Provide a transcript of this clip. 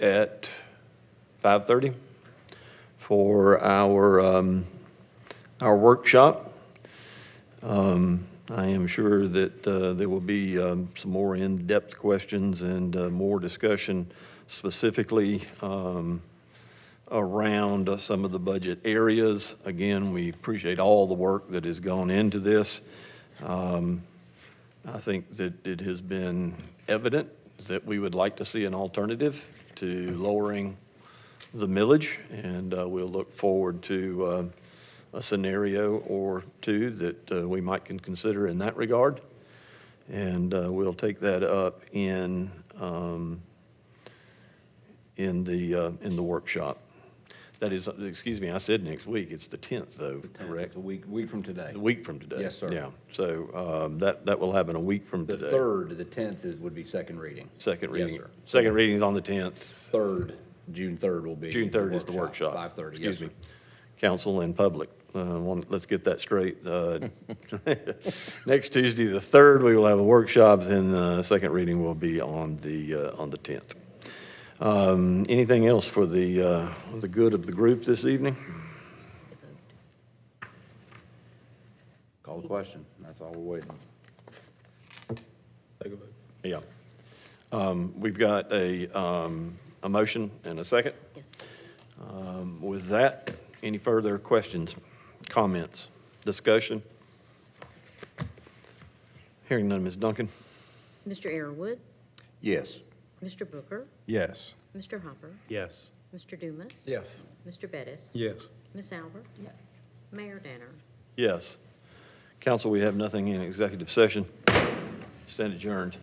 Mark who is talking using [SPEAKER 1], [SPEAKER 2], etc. [SPEAKER 1] at 5:30 for our, um, our workshop. Um, I am sure that uh, there will be um, some more in-depth questions and uh, more discussion specifically um, around uh, some of the budget areas. Again, we appreciate all the work that has gone into this. Um, I think that it has been evident that we would like to see an alternative to lowering the millage, and uh, we'll look forward to uh, a scenario or two that uh, we might can consider in that regard. And uh, we'll take that up in, um, in the, uh, in the workshop. That is, excuse me, I said next week, it's the 10th, though, correct?
[SPEAKER 2] It's a week, week from today.
[SPEAKER 1] A week from today.
[SPEAKER 2] Yes, sir.
[SPEAKER 1] Yeah, so um, that, that will happen a week from
[SPEAKER 2] The
[SPEAKER 1] today.
[SPEAKER 2] third, the tenth is, would be second reading.
[SPEAKER 1] Second
[SPEAKER 2] Yes,
[SPEAKER 1] reading.
[SPEAKER 2] sir.
[SPEAKER 1] Second reading is on the 10th.
[SPEAKER 2] Third, June third will be.
[SPEAKER 1] June 3rd is the workshop.
[SPEAKER 2] Five thirty, yes,
[SPEAKER 1] Excuse
[SPEAKER 2] sir.
[SPEAKER 1] me. Council and public. Uh, one- Let's get that straight. Uh, Next Tuesday, the 3rd, we will have a workshop, then the second reading will be on the, uh, on the 10th. Um, Anything else for the, uh, the good of the group this evening?
[SPEAKER 2] Call the question. That's all we're waiting.
[SPEAKER 1] Yeah. Um, We've got a, um, a motion and a second.
[SPEAKER 3] Yes.
[SPEAKER 1] Um, With that, any further questions, comments, discussion? Hearing none, Ms. Duncan?
[SPEAKER 3] Mr. Arrowood,
[SPEAKER 2] Yes.
[SPEAKER 3] Mr. Booker,
[SPEAKER 4] Yes.
[SPEAKER 3] Mr. Hopper,
[SPEAKER 4] Yes.
[SPEAKER 3] Mr. Dumas.
[SPEAKER 4] Yes.
[SPEAKER 3] Mr. Bettis.
[SPEAKER 4] Yes.
[SPEAKER 3] Ms. Albert. Yes. Mayor Danner.
[SPEAKER 1] Yes. Council, we have nothing in executive session. Stand adjourned.